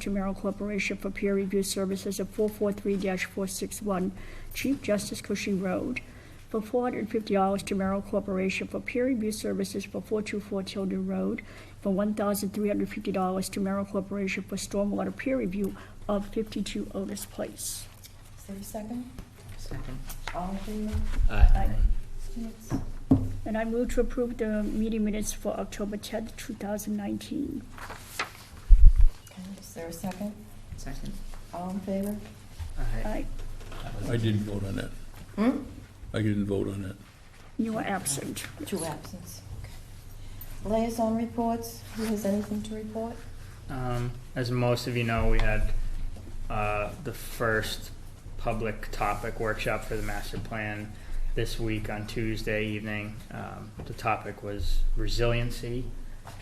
to Merrill Corporation for peer review services at 443-461 Chief Justice Cushing Road, for $450 to Merrill Corporation for peer review services for 424 Tilden Road, for $1,350 to Merrill Corporation for stormwater peer review of 52 Otis Place. Is there a second? Second. All in favor? Aye. Abstentions? And I move to approve the meeting minutes for October 10th, 2019. Okay, Is there a second? Second. All in favor? Aye. I didn't vote on that. Hmm? I didn't vote on that. You are absent. Two absence. Okay. Liaison reports, who has anything to report? Um, as most of you know, we had uh, the first public topic workshop for the master plan this week on Tuesday evening. Um, the topic was resiliency,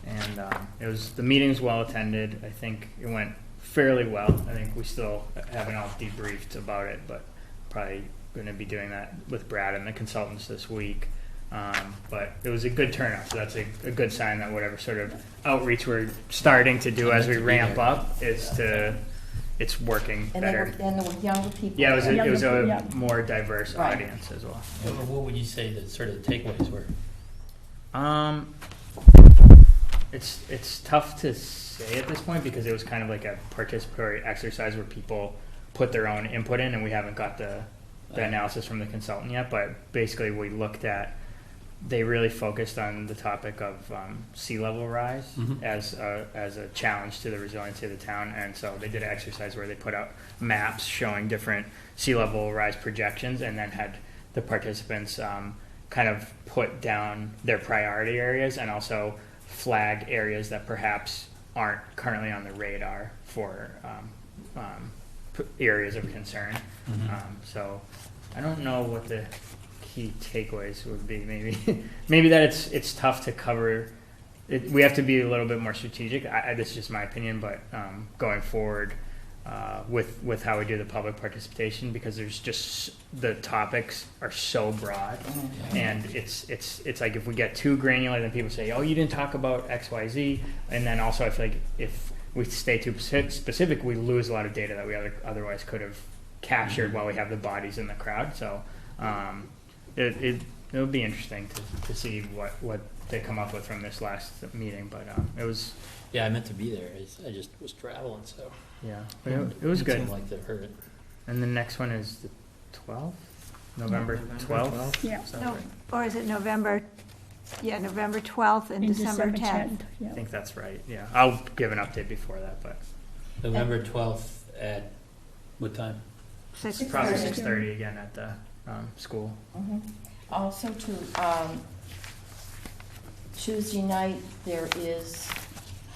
and um, it was the meeting was well attended. I think it went fairly well. I think we still haven't all debriefed about it, but probably going to be doing that with Brad and the consultants this week. Um, but it was a good turnout, so that's a, a good sign that whatever sort of outreach we're starting to do as we ramp up is to it's working And better. there were, and there were younger people. Yeah, it was a, it was Yeah. a more diverse Right. audience as well. What would you say the sort of takeaways were? Um, it's it's tough to say at this point because it was kind of like a participatory exercise where people put their own input in, and we haven't got the the analysis from the consultant yet. But basically, we looked at they really focused on the topic of um, sea level rise as a, as a challenge to the resiliency of the town, and so they did an exercise where they put out maps showing different sea level rise projections, and then had the participants um, kind of put down their priority areas and also flag areas that perhaps aren't currently on the radar for um, um, p- areas of concern. Um, so I don't know what the key takeaways would be. Maybe maybe that it's it's tough to cover. It, we have to be a little bit more strategic. I, I, this is just my opinion, but um, going forward uh, with with how we do the public participation, because there's just the topics are so broad, and it's it's it's like if we get too granular, then people say, "Oh, you didn't talk about X, Y, Z," and then also I feel like if we stay too spec- specific, we lose a lot of data that we other, otherwise could have captured while we have the bodies in the crowd. So um, it, it it would be interesting to, to see what what they come up with from this last meeting. But um, it was Yeah, I meant to be there. I s- I just was traveling, so. yeah, it, it was It good. seemed like the hurt. And the next one is the twelfth, November twelfth. Yeah. No, Or is it November, yeah, November 12th and In December 10th? yeah. I think that's right. Yeah, I'll give an update before that, but November twelfth at, What time? Six- Six probably thirty. six thirty again at the um, school. Mhm. Also to, um, Tuesday night, there is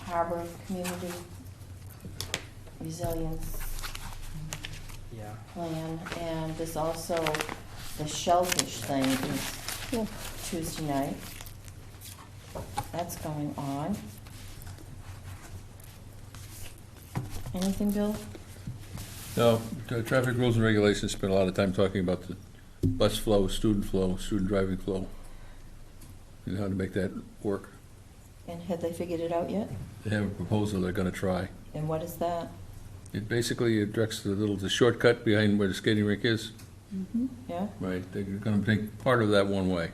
Harbor Community Resilience Yeah. Plan, and there's also the shellfish thing is Cool. Tuesday night. That's going on. Anything, Bill? No, the traffic rules and regulations spent a lot of time talking about the bus flow, student flow, student driving flow, and how to make that work. And have they figured it out yet? They have a proposal they're gonna try. And what is that? It basically directs the little, the shortcut behind where the skating rink is. Yeah? Right. They're gonna take part of that one way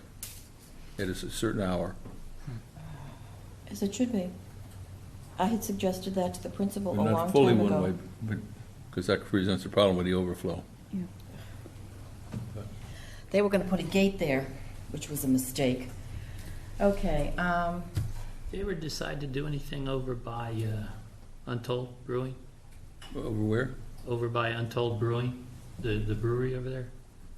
at a s- certain hour. As it should be. I had suggested that to the principal a Well, long Not fully time one way, ago. but, because that presents a problem with the overflow. They were gonna put a gate there, which was a mistake. Okay, um, they ever decide to do anything over by uh, Untold Brewing? Over where? Over by Untold Brewing, the, the brewery over there?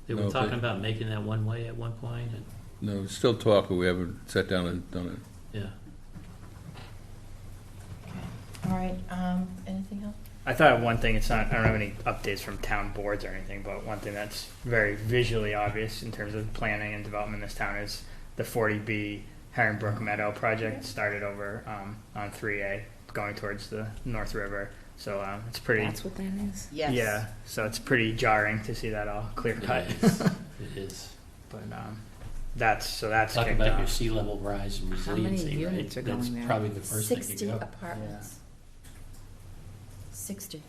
They No, were they- talking about making that one way at one point and, No, it's still talk, but we haven't sat down and done it. yeah. all right, um, anything else? I thought one thing, it's not, I don't have any updates from town boards or anything, but one thing that's very visually obvious in terms of planning and development in this town is the 40B Heron Brook Meadow project started over um, on 3A going towards the North River. So um, it's pretty, what that is? Yes. yeah, so it's pretty jarring to see that all clear cut. It is. It is. But um, that's, so that's Talk kicked about your off. sea level rise and How many resiliency, right? units are going there? That's probably the first thing to Sixty go. apartments. sixty.